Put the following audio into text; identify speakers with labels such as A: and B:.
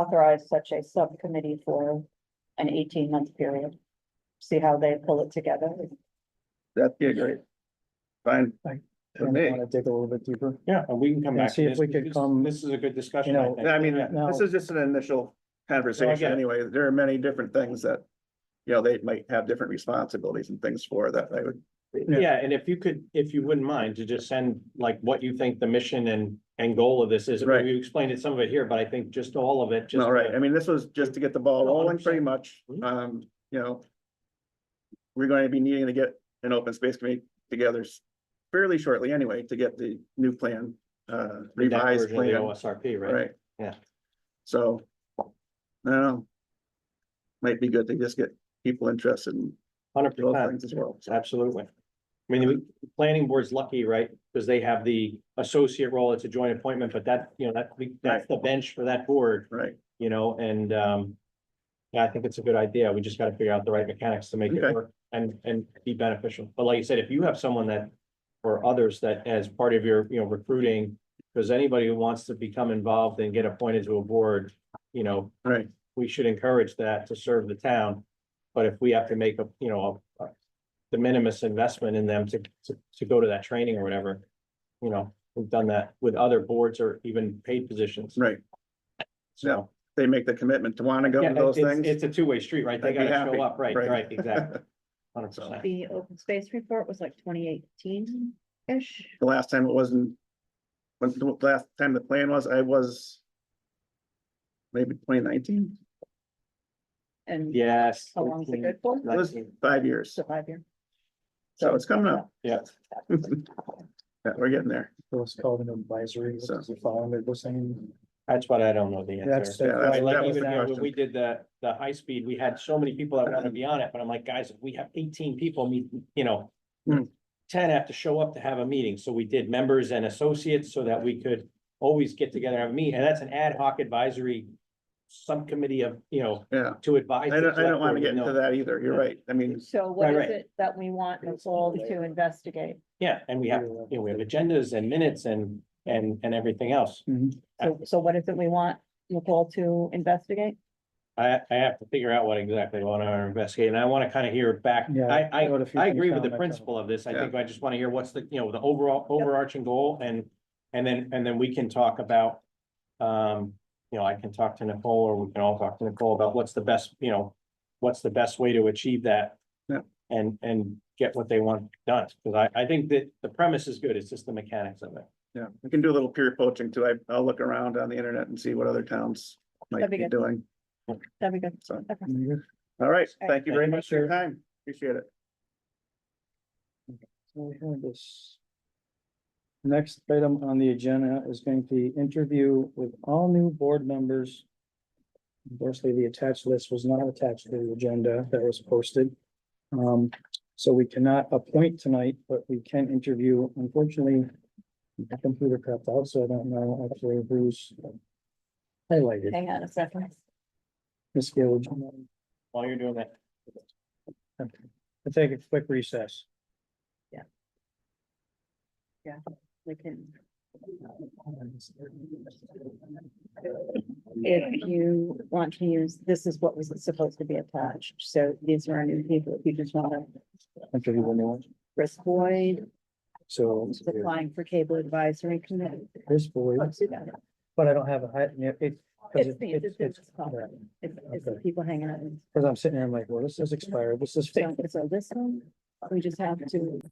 A: authorize such a subcommittee for an eighteen month period. See how they pull it together.
B: That'd be a great. Fine.
C: Like,
B: For
C: And
B: me.
C: want to dig a little bit deeper.
D: Yeah, and we can come
C: And
D: back. to
C: see if
D: this.
C: we could
D: This-
C: come,
D: This is a good discussion.
C: you know,
D: think.
B: I mean,
D: Yeah.
C: Now,
B: This is just an initial
D: No, I
B: conversation
D: get it.
B: anyway. There are many different things that, you know, they might have different responsibilities and things for that I would.
C: Yeah.
D: Yeah, and if you could, if you wouldn't mind to just send like what you think the mission and, and goal of this is.
B: Right.
D: You explained it, some of it here, but I think just all of it, just.
B: All right,
D: to-
B: I mean, this was just to get the ball
D: No,
B: rolling pretty
D: 100%.
B: much,
D: Mhm.
B: um, you know. We're going to be needing to get an open space committee together s- fairly shortly anyway to get the new plan, uh,
D: the next
B: revised
D: version of the
B: plan,
D: OSRP, right?
B: right?
D: Yeah.
B: So, I don't know. Might be good to just get people interested in
D: Hundred
B: those
D: percent,
B: things as well. so.
D: absolutely. I mean, the planning board's lucky, right? Because they have the associate role, it's a joint appointment, but that, you know, that, that's the bench for that board.
B: Right,
D: you know, and um. Yeah, I think it's a good idea. We just gotta figure out the right mechanics to make
B: Okay.
D: it work and and be beneficial. But like you said, if you have someone that. Or others that as part of your, you know, recruiting, because anybody who wants to become involved and get appointed to a board, you know,
B: right,
D: we should encourage that to serve the town. But if we have to make a, you know, a. a De minimis investment in them to to to go to that training or whatever. You know, we've done that with other boards or even paid positions,
B: right.
D: so.
B: They make the commitment to want to go
D: Yeah,
B: to those
D: it's-
B: things.
D: It's a two-way street, right? They
B: I'd be
D: gotta
B: happy,
D: show up, right,
B: right.
D: right, exactly. Hundred percent.
A: The open space report was like twenty eighteen-ish.
B: The last time it wasn't. When the last time the plan was, I was. Maybe twenty nineteen,
A: And
D: Yes.
A: how long is it good for?
B: it was
D: 19.
B: five years,
A: So five year.
B: so it's coming up,
D: Yeah.
B: yeah, we're getting there,
C: It was called an advisory,
B: So-
C: which is following, it was saying,
D: That's what I don't know the
C: that's.
D: answer.
B: Yeah, that's-
C: that's-
D: I mean,
B: that
D: Like
B: was
D: even
B: the
D: uh, when
B: question.
D: we did the, the high speed, we had so many people that wanted to be on it, but I'm like, guys, we have eighteen people, meet, you know.
B: Hmm.
D: Ten have to show up to have a meeting, so we did members and associates so that we could always get together and meet, and that's an ad hoc advisory. Subcommittee of, you know,
B: yeah.
D: to advise.
B: I
D: the
B: don't, I
D: select
B: don't want
D: board,
B: to get
D: no.
B: into that either, you're
D: Yeah.
B: right, I mean,
A: So what
D: Right,
A: is
D: right.
A: it that we want Nicole to investigate?
D: Yeah, and we have, you know, we have agendas and minutes and, and, and everything else.
C: Mm-hmm.
A: So, so what is it we want Nicole to investigate?
D: I, I have to figure out what exactly I want to investigate, and I want to kind of hear it back.
C: Yeah,
D: I, I,
C: wrote a few
D: I
C: things
D: agree
C: down
D: with the
C: myself.
D: principle of this. I
B: Yeah.
D: think I just want to hear what's the, you know, the overall overarching goal and, and then, and then we can talk about. Um, you know, I can talk to Nicole or we can all talk to Nicole about what's the best, you know, what's the best way to achieve that.
B: Yeah.
D: And, and get what they want done, because I, I think that the premise is good. It's just the mechanics of it.
B: yeah, we can do a little peer poaching too, I, I'll look around on the internet and see what other towns might
A: That'd be
B: be
A: good.
B: doing,
A: That'd be good.
B: so,
A: Okay.
C: Mhm.
B: all right, thank you very
D: Thank you,
B: much for your time, appreciate it.
C: So we have this. Next item on the agenda is going to be interview with all new board members. Unfortunately, the attached list was not attached to the agenda that was posted. Um, so we cannot appoint tonight, but we can interview, unfortunately. The computer cut out, so I don't know actually who's. Highlighted,
A: Hang on a second.
C: Ms. Gill.
D: While you're doing that,
C: I'll take a quick recess.
A: Yeah, we can. If you want to use, this is what was supposed to be attached, so these are our new people, if you just want to,
C: Interview the new one.
A: Chris Boyd,
C: So
A: who's applying for cable advisory committee.
C: this boy.
A: Let's do that.
C: But I don't have a high, yeah, it. 'cause
A: It's
C: it-
A: me, it's
C: it's-
A: in
C: it's-
A: this column.
C: right.
A: It's, it's the people hanging out.
C: Cause I'm sitting here, I'm like, well, this is expired, this is.
A: So, so this one, we just have to